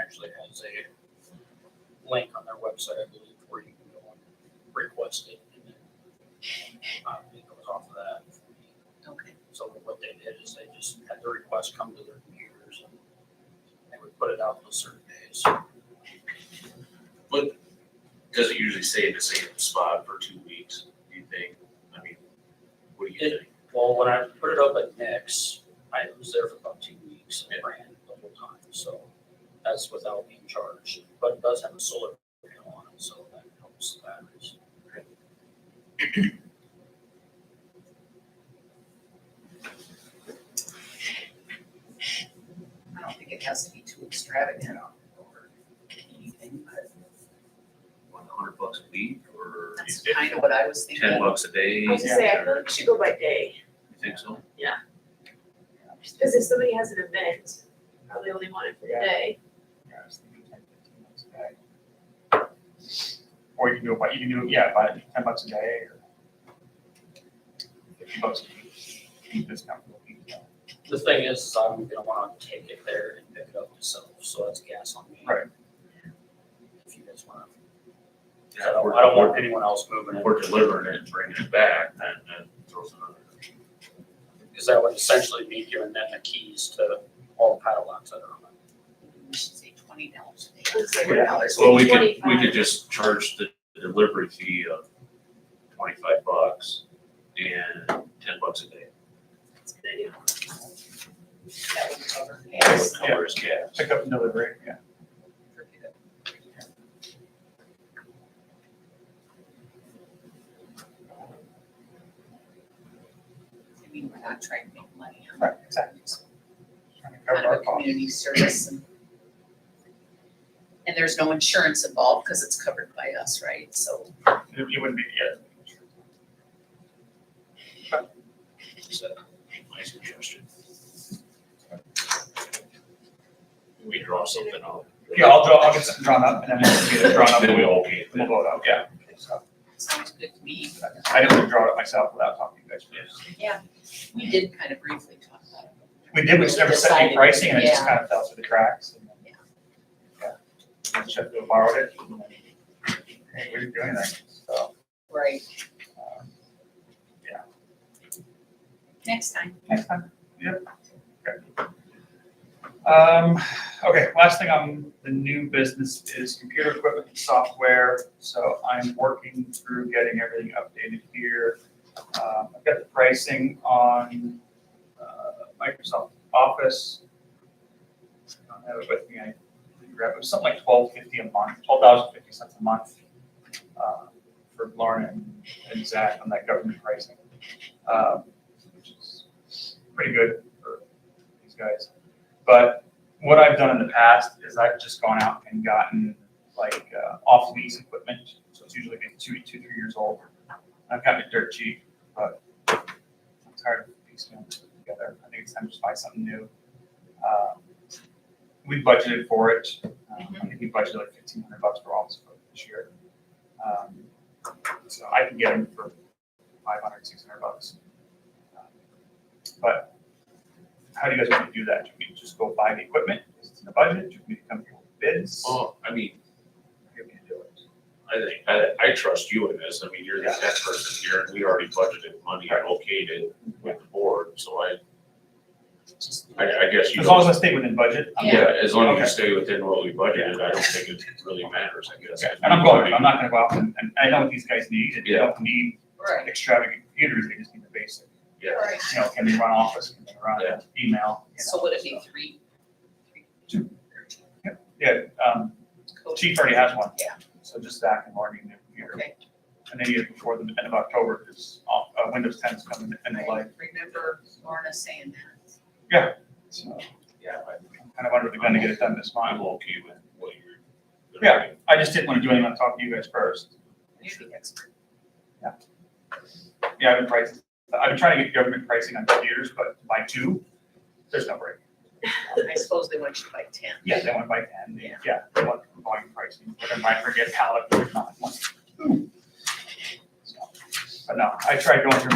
actually has a link on their website, I believe, where you can go and request it. and then, uh, It goes off of that. Okay. So what they did is they just had the request come to their computers and they would put it out on certain days. Does it usually stay in the same spot for two weeks, do you think? I mean, what do you It- think? Well, when I put it up at Nick's, I was there for about two weeks and ran the whole time, so that's without being charged. But it does have a solar panel on it, so that helps the batteries. I don't think it has to be too extravagant or anything, but One hundred bucks a week or you that's think kind of what I was ten thinking. bucks a day? I was gonna say, I feel or- like we should go by day, You think so? just because if somebody has an event, probably only want it for the day. Or you can do it by, you can do, it, yeah, by ten bucks a day or fifty bucks a week. Keep this comfortable. The thing is, is I'm gonna wanna take it there and pick it up myself, so that's gas on me. Right. If you guys wanna, 'cause I don't, I don't want anyone else moving If it, we're delivering it and bringing it back, then that throws another. because that would essentially be giving them the keys to all the padlocks that are on it. We should say twenty dollars a day. Let's say Yeah. dollars. Well, we could, we 25. could just charge the delivery fee of twenty-five bucks and ten bucks a day. That's a good idea. That would cover That would gas. cover his gas. Pick up and deliver, yeah. I mean, we're not trying to make money. on it. Right, exactly. Trying to Kind cover of our a costs. community service and. And there's no insurance involved because it's covered by us, right? So It it wouldn't be, yeah. So, my suggestion. We draw something up. Yeah, I'll draw, I'll get something drawn up and then we'll get it drawn up Then and we'll, we'll okay. we'll blow it out, yeah. So, sounds good to me. I didn't want to draw it up myself without talking to you guys first. We did kind of briefly talk about it. We did, we just never set any Decided, pricing and it just yeah. kind of fell through the cracks. and- Yeah. Yeah. Should have borrowed it. Hey, we're doing that, so. Right, um, next time. Next time, yep. Okay. Um, okay, last thing on the new business is computer equipment and software. So I'm working through getting everything updated here. Um, I've got the pricing on, uh, Microsoft Office. I don't have it with me, I didn't grab it, it was something like twelve fifty a month, twelve thousand fifty cents a month. uh, For Lauren and- and Zach on that government pricing. Um, which is pretty good for these guys. But what I've done in the past is I've just gone out and gotten like uh, off lease equipment. So it's usually been two, two, three years old. I've gotten it dirt cheap, but I'm tired of piecemealing it together. I think it's time to just buy something new. Um, We budgeted for it. Um, I think we budgeted like fifteen hundred bucks for all this equipment this year. Um, So I can get them for 500, 600 bucks. Um, But how do you guys want to do that? Do we just go buy the equipment? Is it in the budget? Do we come here with bids? Well, I mean, How do we do it? I think, I, I trust you in this. I mean, you're the tech person here and we already budgeted money allocated with the board, so I, Just do it. I, I guess you. As long as I stay within budget. I'm good. Yeah, as long as Okay. you stay within what we budgeted, I don't think it really matters, I guess. Okay. And I'm going, I'm not gonna go out and, and I know what these guys need, and they Yeah. don't need Right. extravagant computers, they just need the basic. Yeah. Right. You know, can they run office, can they run Yeah. email? you So know, would it be three? three- Two. or two? Yeah, um, chief already has one. Yeah. So just that and learning new computer. Okay. And then you, before the end of October, because, uh, Windows 10 is coming and they I like, remember Lorna saying that. so Yeah, I- I'm kind of under the gun to get it done this month. I'm okay with what you're. Yeah. I just didn't want to do anything on top of you guys first. You're the expert. Yeah, I've been pricing, I've been trying to get government pricing on computers, but by two, there's no break. I suppose they want you to buy ten. Yeah, they want by ten, Yeah. yeah, they want volume pricing, but then I forget how it, not one. So, But no, I tried going through